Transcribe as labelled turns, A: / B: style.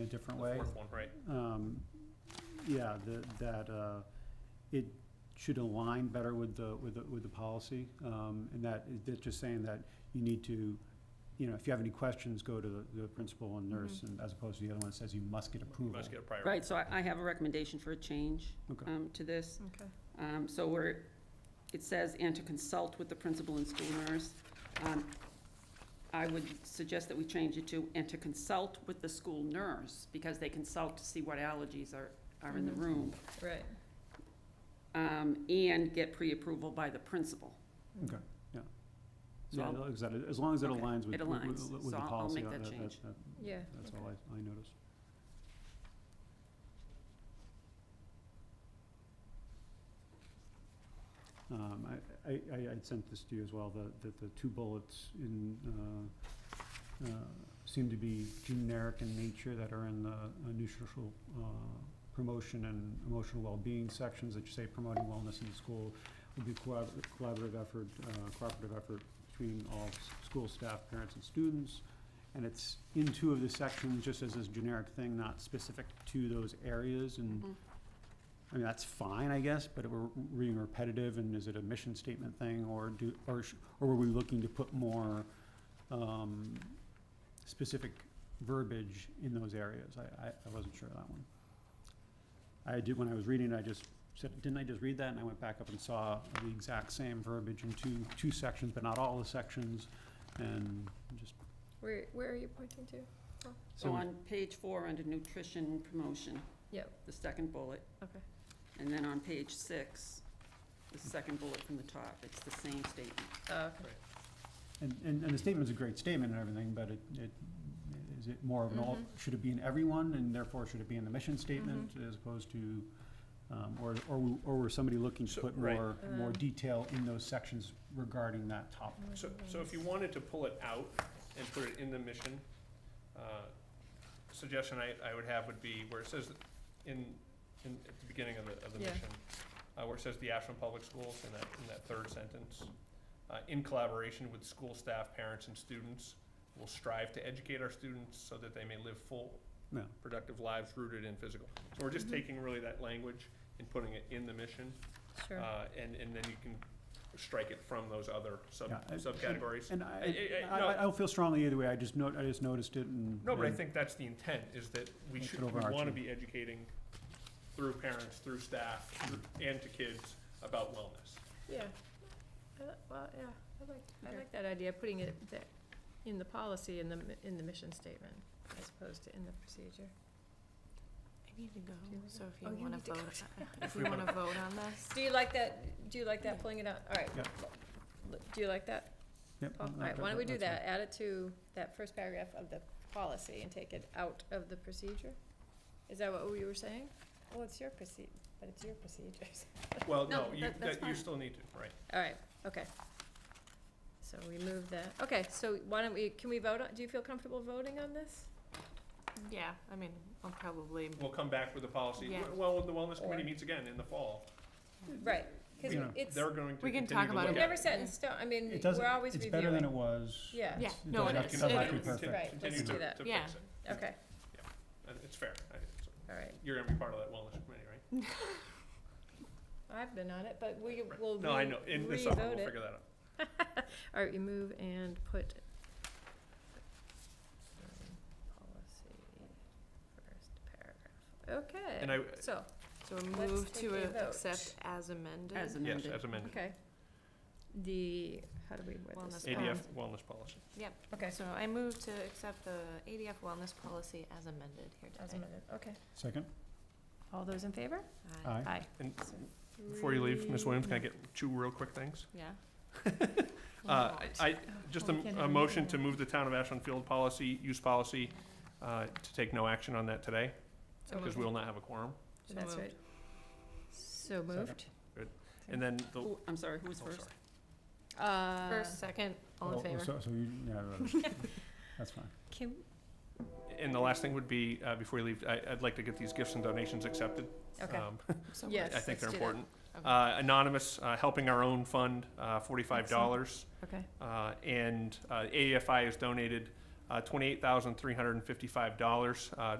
A: a different
B: The
A: way.
B: fourth one, right.
A: Um, yeah, the, that, uh, it should align better with the, with the, with the policy. Um, and that, that's just saying that you need to, you know, if you have any questions, go to the- the principal and
C: Mm-hmm.
A: nurse, and as opposed to the other one that says you must get
B: You
A: approval.
B: must get a prior.
C: Right, so I, I have a recommendation for a change
A: Okay.
C: um, to this.
D: Okay.
C: Um, So we're, it says, and to consult with the principal and school nurse. Um, I would suggest that we change it to, and to consult with the school nurse, because they consult to see what allergies are, are in the
D: Mhm.
C: room.
D: Right.
C: um, And get pre-approval by the principal.
A: Okay, yeah.
C: So
A: Yeah,
C: I'll-
A: no, exactly, as long as it
C: Okay,
A: aligns with,
C: it
A: with-
C: aligns,
A: with- with
C: so
A: the
C: I'll- I'll
A: policy,
C: make
A: uh,
C: that
A: that, that,
C: change.
A: that-
D: Yeah.
A: that's
D: okay.
A: all I, I noticed. Um, I, I, I I'd sent this to you as well, the, that the two bullets in, uh, uh, seem to be generic in nature that are in the uh, nutritional, uh, promotion and emotional well-being sections that you say promoting wellness in the school would be collab- collaborative effort, uh, cooperative effort between all s- school staff, parents, and students. And it's in two of the sections, just as this generic thing, not specific to those areas, and,
C: Mhm.
A: I mean, that's fine, I guess, but we're reading repetitive, and is it a mission statement thing, or do, or, sh- or were we looking to put more, um, specific verbiage in those areas? I, I, I wasn't sure of that one. I did, when I was reading, it, I just said, didn't I just read that? And I went back up and saw the exact same verbiage in two, two sections, but not all the sections, and just,
D: Where, where are you pointing to?
A: so.
C: So on page four, under nutrition promotion.
D: Yep.
C: The second bullet.
D: Okay.
C: And then on page six, the second bullet from the top, it's the same statement.
D: Oh, okay.
A: And, and, and the statement's a great statement and everything, but it, it, is it more of an all,
D: Mhm.
A: should it be in everyone, and therefore should it be in the mission statement
D: Mm-hmm.
A: as opposed to, um, or, or, w- or were somebody looking to
B: So-
A: put
B: right.
A: more, more
D: Um.
A: detail in those sections regarding that topic?
B: So, so if you wanted to pull it out and put it in the mission, uh, suggestion I, I would have would be where it says in, in, at the beginning of the, of the
D: Yeah.
B: mission, uh, where it says the Ashland Public Schools in that, in that third sentence, uh, in collaboration with school staff, parents, and students, will strive to educate our students so that they may live full,
A: Yeah.
B: productive lives rooted in physical. So we're just
D: Mhm.
B: taking really that language and putting it in the mission,
D: Sure.
B: uh, and, and then you can strike it from those other sub,
A: Yeah, I-
B: subcategories.
A: And
B: I-
A: I,
B: I-
A: I,
B: no.
A: I don't feel strongly either way, I just note, I just noticed it and.
B: No, but I
A: and-
B: think that's the intent, is that we
A: Make
B: should,
A: it
B: we wanna
A: overarching.
B: be educating through parents, through staff, through- and to kids about wellness.
D: Yeah. I li- Well, yeah, I like, I
C: Okay.
D: like that idea, putting it there, in the policy, in the, mi- in the mission statement, as opposed to in the procedure.
E: I need to go,
D: Do you wanna-
E: Oh, so if
D: oh,
E: you
D: you
E: wanna
D: need to go.
E: vote, if you wanna vote on this.
D: Do you like that, do you like that,
E: Yeah.
D: pulling it out? All right.
A: Yeah.
D: l- l- Do you like that?
A: Yep,
D: All
A: no,
D: right, why don't we do
A: that's fine.
D: Mm, that? Add it to that first paragraph of the policy and take it out of the procedure? Is that what we were saying? Well, it's your proceed, but it's your procedures.
B: Well,
C: No,
B: no, you,
C: that- that's
B: that, you
C: fine.
B: still need to, right?
D: All right, okay. So we move that, okay, so why don't we, can we vote on, do you feel comfortable voting on this?
E: Yeah, I mean, I'll probably,
B: We'll come back with a policy.
E: Yeah.
B: Well, the wellness committee
D: Or-
B: meets again in the fall.
D: Right, cause
A: You know,
D: it's,
B: They're going to
E: We can
B: continue to
E: talk about
B: look
E: it.
D: we're
B: at
D: never set in
E: Yeah.
D: stone, I mean,
A: It doesn't,
D: we're always
A: it's
D: reviewing.
A: better than it was.
D: Yeah.
E: yeah,
A: It
E: no,
A: does
E: it
A: have
B: It
A: to
E: is,
A: come
E: it
A: back
B: continue-
A: to
E: is.
A: perfect.
D: Right,
B: continue
D: let's do
B: to-
D: that.
B: to
E: Yeah.
B: fix it.
D: Okay,
B: And It's fair. I- it's-
D: all right,
B: You're gonna be part of that wellness committee, right?
D: I've been on it, but we
B: Right.
D: will re- revote it.
B: No, I know, in the summer, we'll figure that out.
D: All right, you move and put um, policy first paragraph.
B: And
D: Okay,
B: I,
D: so,
E: So
D: Let's
E: move
D: take a vote.
E: to accept as amended.
C: As
B: yes,
C: amended.
B: as amended,
D: okay. The, how do we word this?
E: Wellness
D: Um,
B: ADF wellness policy.
D: Okay,
E: So I move to accept the ADF wellness policy as amended here today.
D: as amended, okay.
A: Second,
D: All those in favor?
E: Aye,
A: aye.
B: And
D: So
B: before you leave, Ms. Williams, can I
D: three-
B: get two real quick things?
E: yeah.
B: Uh,
E: Why not?
B: I, I- just a,
D: Well, we can't
B: a
D: have a
B: motion
D: meeting
B: to
D: now.
B: move the town of Ashland field policy, use policy, uh, to take no action on that today,
E: So
B: because
E: moved.
B: we will not have a quorum.
E: So
D: That's
E: moved.
D: right. So moved.
B: And then the, oh,
C: Who- I'm sorry, who was
B: sorry.
C: first?
D: Uh,
E: First, second, all in
A: Oh, oh,
E: favor.
A: So, so you, yeah, that's fine.
D: Can,
B: And the last thing would be, uh, before you leave, I, I'd like to get these gifts and donations accepted.
D: okay,
B: Um,
E: So
D: Yes.
B: I think they're
D: let's do that.
B: important.
E: Okay.
B: Uh, anonymous, uh, helping our own fund, uh, forty-five dollars.
D: okay.
B: Uh, and, uh, AFI has donated, uh, twenty-eight thousand, three hundred and fifty-five dollars, uh,